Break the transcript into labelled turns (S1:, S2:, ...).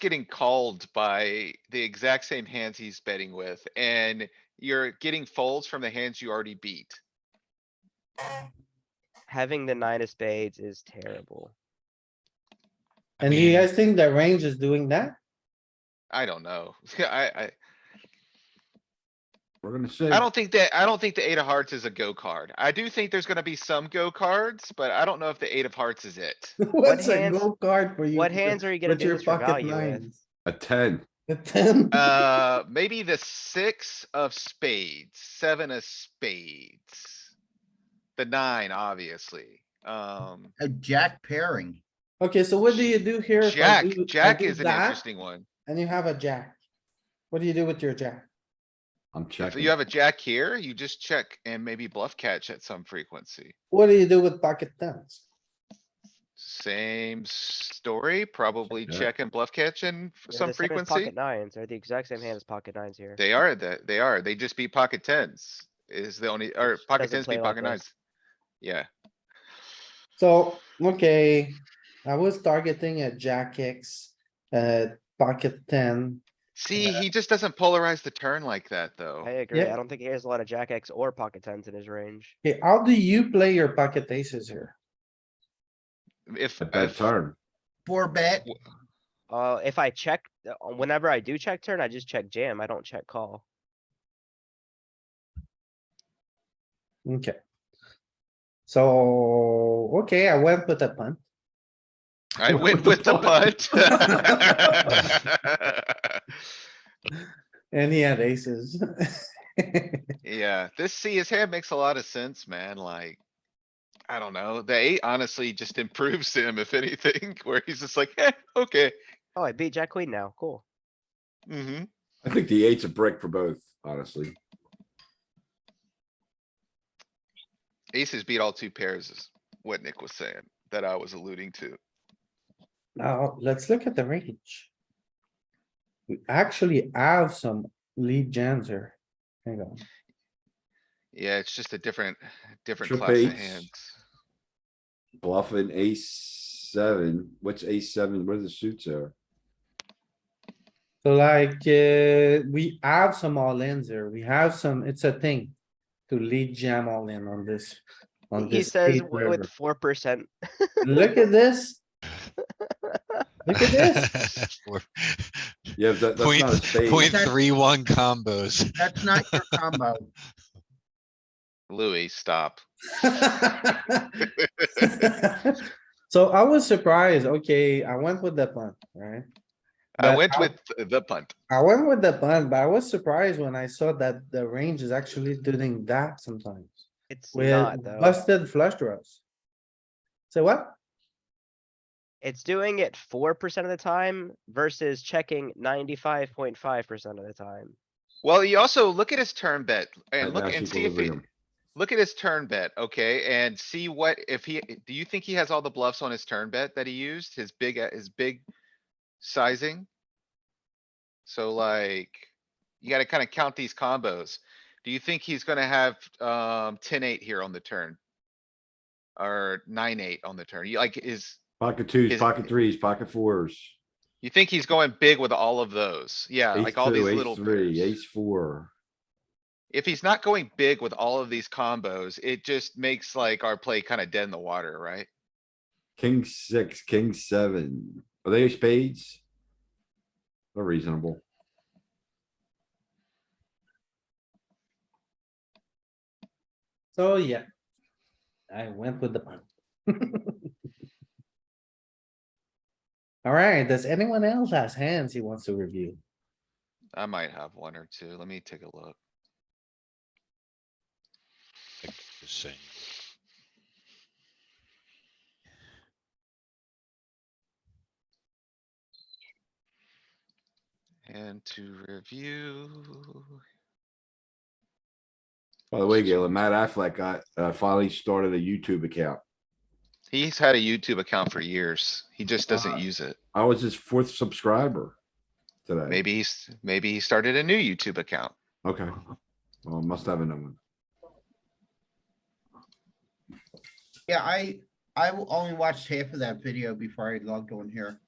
S1: getting called by the exact same hands he's betting with, and you're getting folds from the hands you already beat.
S2: Having the nine of spades is terrible.
S3: And do you guys think the range is doing that?
S1: I don't know. I,
S4: We're gonna
S1: I, I
S4: say,
S1: don't think that, I don't think the eight of hearts is a go card. I do think there's gonna be some go cards, but I don't know if the eight of hearts is it.
S3: What's a
S2: hands-
S3: go card for you?
S2: what hands are you gonna
S3: with
S2: do
S3: your
S2: this for
S3: pocket
S2: value with?
S3: nines?
S4: a ten,
S3: The ten?
S1: Uh, maybe the six of spades, seven of spades. The nine, obviously. Um,
S5: A jack pairing.
S3: Okay, so what do you do here? if I
S1: jack,
S3: do- I
S1: jack
S3: do
S1: is an
S3: that
S1: interesting one.
S3: And you have a jack. What do you do with your jack?
S4: I'm
S1: If
S4: checking.
S1: you have a jack here, you just check and maybe bluff catch at some frequency.
S3: What do you do with pocket tens?
S1: Same story, probably
S4: Check.
S1: check and bluff catch and some
S2: They're the same as
S1: frequency.
S2: Pocket nines are the exact same hand as pocket nines here.
S1: They are, that, they are. They just beat pocket tens is the only, or
S2: Which
S1: pocket
S2: doesn't
S1: tens
S2: play
S1: beat
S2: like
S1: pocket
S2: us.
S1: nines. Yeah,
S3: So, okay, I was targeting a jack X, uh, pocket ten.
S1: see, he just doesn't polarize the turn like that, though.
S2: I agree.
S3: Yep.
S2: I don't think he has a lot of jack X or pocket tens in his range.
S3: Okay, how do you play your pocket aces here?
S1: If,
S4: A bad
S1: if-
S4: turn.
S5: Four bet,
S2: Uh, if I check, uh, whenever I do check turn, I just check jam. I don't check call.
S3: Okay. So, okay, I went with a punt.
S1: I went with the punt.
S3: And he had aces.
S1: Yeah, this, see, his hand makes a lot of sense, man, like. I don't know, the eight honestly just improves him if anything, where he's just like, eh, okay,
S2: Oh, I beat jack queen now. Cool.
S1: mm-hmm.
S4: I think the eight's a brick for both, honestly.
S1: Aces beat all two pairs is what Nick was saying, that I was alluding to.
S3: Now, let's look at the range. We actually have some lead jams here. Hang on.
S1: Yeah, it's just a different, different
S4: Trump
S1: class of
S4: eights.
S1: hands.
S4: Bluffing ace seven, what's ace seven, where the suits are?
S3: So like, uh, we have some all ins here. We have some, it's a thing. To lead jam all in on this, on
S2: He
S3: this.
S2: says
S3: eight
S2: w- with
S3: river.
S2: four percent.
S3: Look at this. Look at this.
S6: Four-
S4: Yeah, that, that's
S6: Point,
S4: not a spade.
S6: point
S5: That's-
S6: three one combos.
S5: that's not your combo.
S1: Louis, stop.
S3: So I was surprised. Okay, I went with the punt, right?
S1: I
S3: But
S1: went with the punt.
S3: I went with the punt, but I was surprised when I saw that the range is actually doing that sometimes
S2: It's not
S3: with
S2: though.
S3: busted flush draws. So what?
S2: It's doing it four percent of the time versus checking ninety-five point five percent of the time.
S1: Well, you also look at his turn bet and
S4: Right
S1: look
S4: now it's
S1: and see if he,
S4: equilibrium.
S1: look at his turn bet, okay? And see what, if he, eh, do you think he has all the bluffs on his turn bet that he used? His big, eh, his big sizing? So like, you gotta kinda count these combos. Do you think he's gonna have, um, ten, eight here on the turn? Or nine, eight on the turn? You like, is,
S4: Pocket twos,
S1: Is-
S4: pocket threes, pocket fours.
S1: you think he's going big with all of those? Yeah,
S4: Ace
S1: like all these
S4: two,
S1: little
S4: ace three,
S1: pairs.
S4: ace four.
S1: If he's not going big with all of these combos, it just makes like our play kinda dead in the water, right?
S4: King six, king seven. Are they spades? They're reasonable.
S3: So yeah. I went with the punt. Alright, does anyone else has hands he wants to review?
S1: I might have one or two. Let me take a look.
S6: Like, just saying.
S1: And to review.
S4: By the way, Galen, Matt Affleck got, uh, finally started a YouTube account.
S1: He's had a YouTube account for years. He just doesn't use it.
S4: I was his fourth subscriber today.
S1: Maybe he's, maybe he started a new YouTube account.
S4: Okay. Well, must have another one.
S5: Yeah, I, I only watched half of that video before I logged on here.